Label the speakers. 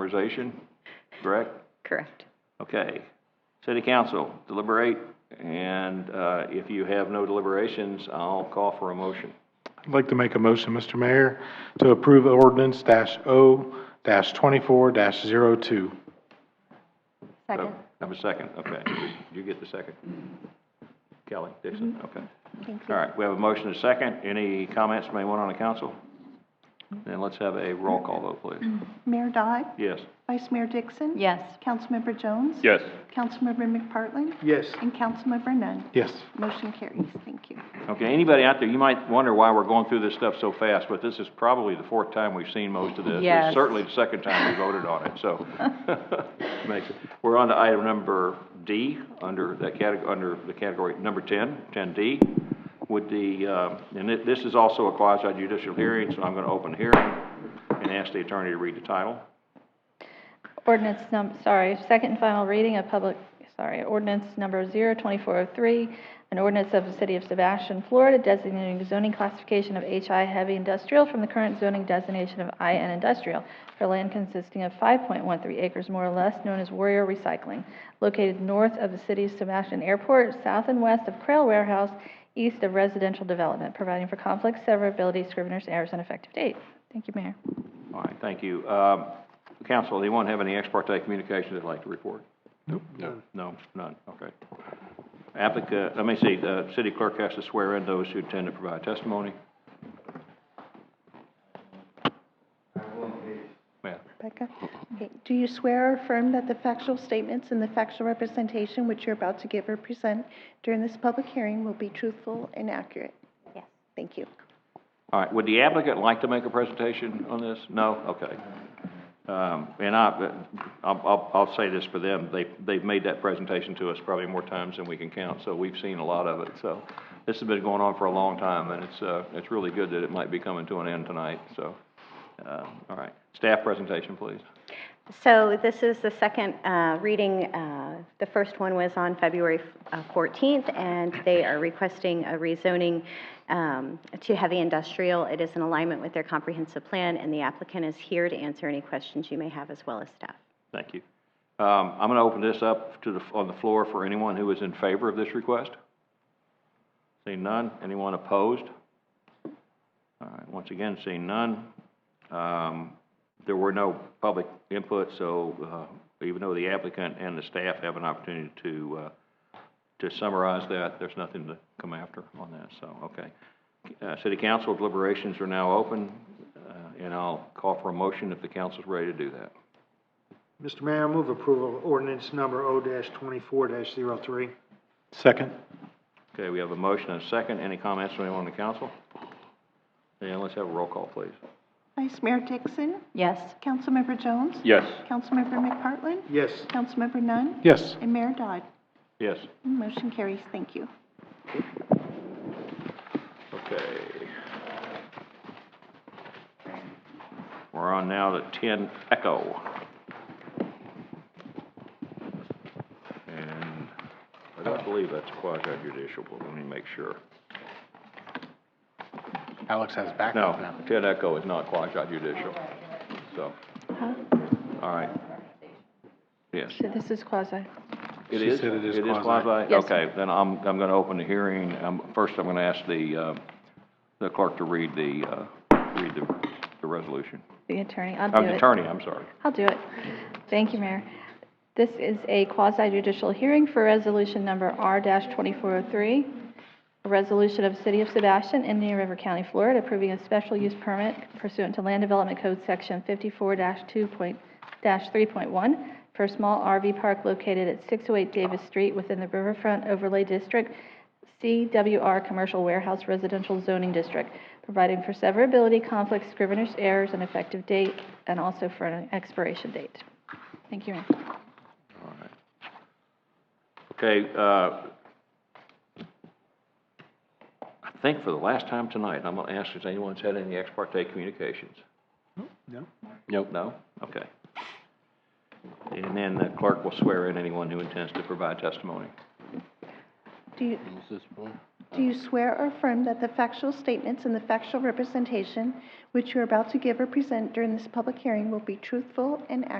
Speaker 1: summarization, correct?
Speaker 2: Correct.
Speaker 1: Okay. City Council, deliberate, and, uh, if you have no deliberations, I'll call for a motion.
Speaker 3: I'd like to make a motion, Mr. Mayor, to approve ordinance dash O dash twenty-four dash zero two.
Speaker 2: Second.
Speaker 1: Have a second, okay. You get the second. Kelly Dixon, okay.
Speaker 2: Thank
Speaker 1: All right, we have a motion and a second. Any comments from anyone on the council? Then let's have a roll call vote, please.
Speaker 4: Mayor Dodd,
Speaker 1: Yes.
Speaker 4: Vice Mayor Dixon.
Speaker 2: Yes.
Speaker 4: Councilmember Jones.
Speaker 1: Yes.
Speaker 4: Councilmember McPartlin.
Speaker 3: Yes.
Speaker 4: And Councilmember Nunn.
Speaker 3: Yes.
Speaker 4: Motion carries. Thank you.
Speaker 1: Okay, anybody out there, you might wonder why we're going through this stuff so fast, but this is probably the fourth time we've seen most of this. It's
Speaker 2: Yes.
Speaker 1: Certainly the second time we voted on it, so. Makes it- We're on to item number D, under that category, under the category number 10, 10D, with the, uh, and thi- this is also a quasi judicial hearing, so I'm going to open the hearing and ask the attorney to read the title.
Speaker 5: Ordinance num, sorry, second and final reading of public, sorry, ordinance number zero twenty-four oh three, an ordinance of the city of Sebastian, Florida designating zoning classification of HI heavy industrial from the current zoning designation of IN industrial for land consisting of five point one three acres more or less, known as Warrior Recycling, located north of the city of Sebastian Airport, south and west of Crail Warehouse, east of residential development, providing for conflicts, severability, scrivener's errors, and effective date. Thank you, Mayor.
Speaker 1: All right, thank you. Um, Counsel, anyone have any ex parte communications they'd like to report? Nope. No, none, okay. Applicant, let me see, the city clerk has to swear in those who intend to provide testimony. Ma'am,
Speaker 4: Becca, okay, do you swear or affirm that the factual statements and the factual representation which you're about to give or present during this public hearing will be truthful and accurate?
Speaker 2: Yes.
Speaker 4: Thank you.
Speaker 1: all right, would the applicant like to make a presentation on this? No? Okay. Um, and I, I'll, I'll, I'll say this for them, they, they've made that presentation to us probably more times than we can count, so we've seen a lot of it, so. This has been going on for a long time, and it's, uh, it's really good that it might be coming to an end tonight, so. Uh, all right, staff presentation, please.
Speaker 2: So this is the second uh, reading. Uh, The first one was on February uh, 14th, and they are requesting a rezoning um, to heavy industrial. It is in alignment with their comprehensive plan, and the applicant is here to answer any questions you may have as well as staff.
Speaker 1: Thank you. Um, I'm going to open this up to the, on the floor for anyone who is in favor of this request. Seeing none, anyone opposed? All right, once again, seeing none. Um, there were no public input, so, uh, even though the applicant and the staff have an opportunity to, uh, to summarize that, there's nothing to come after on that, so, okay. Uh, city council deliberations are now open, uh, and I'll call for a motion if the council's ready to do that.
Speaker 6: Mr. Mayor, I move approval of ordinance number O twenty-four 3
Speaker 3: Second.
Speaker 1: Okay, we have a motion and a second. Any comments from anyone on the council? Then let's have a roll call, please.
Speaker 4: Vice Mayor Dixon,
Speaker 2: Yes.
Speaker 4: Councilmember Jones.
Speaker 1: Yes.
Speaker 4: Councilmember McPartlin.
Speaker 6: Yes,
Speaker 4: Councilmember Nunn.
Speaker 3: Yes.
Speaker 4: And Mayor Dodd.
Speaker 1: Yes.
Speaker 4: Motion carries. Thank you.
Speaker 1: Okay. We're on now to ten Echo. And I don't believe that's quasi judicial, but let me make sure.
Speaker 3: Alex has back.
Speaker 1: No, ten Echo is not quasi judicial, so, all right. Yes.
Speaker 5: Uh-huh. So this is quasi.
Speaker 1: It
Speaker 3: She
Speaker 1: is?
Speaker 3: said it is quasi.
Speaker 1: quasi?
Speaker 5: Yes.
Speaker 1: Okay, then I'm, I'm gonna open the hearing. Um, first, I'm gonna ask the, uh, the clerk to read the, uh, read the, the resolution.
Speaker 5: The attorney, I'll
Speaker 1: Uh,
Speaker 5: do
Speaker 1: the
Speaker 5: it.
Speaker 1: attorney, I'm sorry.
Speaker 5: I'll do it. Thank you, Mayor. This is a quasi judicial hearing for resolution number R twenty-four oh three, a resolution of the City of Sebastian, Indian River County, Florida, approving a special use permit pursuant to Land Development Code Section fifty-four 2 three point one for a small RV park located at six oh eight Davis Street within the Riverfront Overlay District, CWR Commercial Warehouse Residential Zoning District, providing for severability, conflicts, scrivener's errors, and effective date, and also for an expiration date. Thank you, Mayor.
Speaker 1: All right. Okay, uh, I think for the last time tonight, I'm gonna ask if anyone's had any ex parte communications.
Speaker 6: no.
Speaker 1: Nope. No? Okay. And then the clerk will swear in anyone who intends to provide testimony.
Speaker 4: Do you, do you swear or affirm that the factual statements and the factual representation which you're about to give or present during this public hearing will be truthful and accurate?